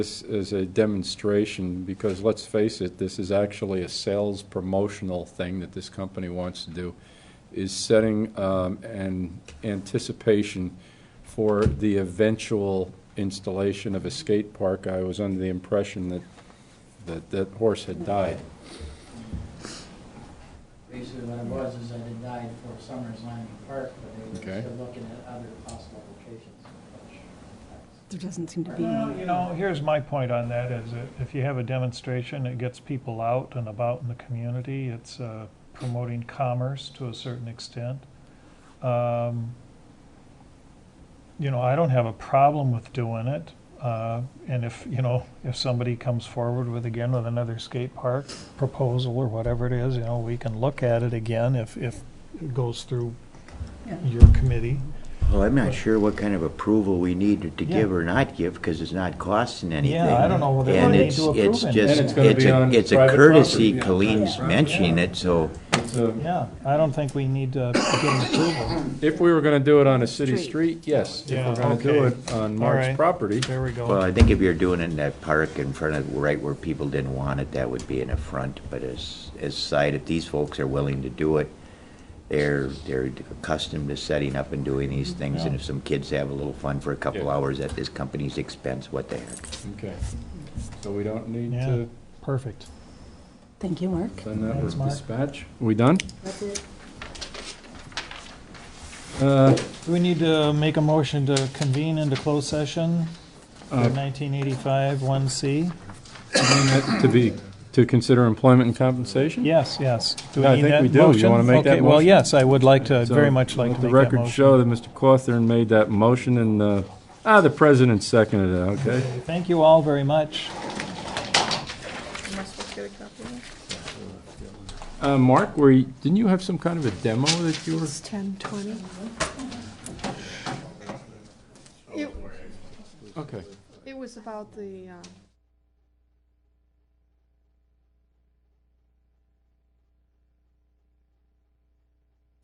This is a demonstration, because let's face it, this is actually a sales promotional thing that this company wants to do, is setting um, an anticipation for the eventual installation of a skate park. I was under the impression that, that that horse had died. Basically, what it was is I had died for Summers Landing Park, but they Okay. were still looking at other possible locations. There doesn't seem to be. Well, you know, here's my point on that, is that if you have a demonstration, it gets people out and about in the community. It's uh, promoting commerce to a certain extent. Um, You know, I don't have a problem with doing it. Uh, And if, you know, if somebody comes forward with, again, with another skate park proposal or whatever it is, you know, we can look at it again if, if it goes through Yeah. your committee. Well, I'm not sure what kind of approval we need to Yeah. give or not give, because it's not costing anything. I don't know whether we And need it's- to approve it's it. just- And it's gonna it's be a- on It's a private courtesy, property. Colleen's mentioning it, so, It's a- Yeah, I don't think we need to get approval. If we were going to do it on a city Street. street, yes. If Yeah, we're going to do okay. it on All Mark's right. property, There we go. well, I think if you're doing it in that park in front of, right where people didn't want it, that would be an affront, but as, as side, if these folks are willing to do it, they're, they're accustomed to setting up and doing these things, and Yeah. if some kids have a little fun for a couple Yeah. hours at this company's expense, what the heck? okay. So we don't need Yeah. to Perfect. Thank you, Mark. send that with Thanks, Mark. dispatch. We done? That's it. Uh, Do we need to make a motion to convene into closed session for Uh, uh, 1985 1C? To be, to consider employment and compensation? Yes, yes. Do Yeah, I need think that we do. You motion? wanna make that Okay, Well, motion? yes, I would like to, So very much like to let make that The record motion. show that Mr. Cawthorn made that motion and, uh, ah, the president seconded it, okay? Thank you all very much. Uh, Mark, were, you- didn't you have some kind of a demo that you were? It's ten twenty. It, Okay. it was about the, um,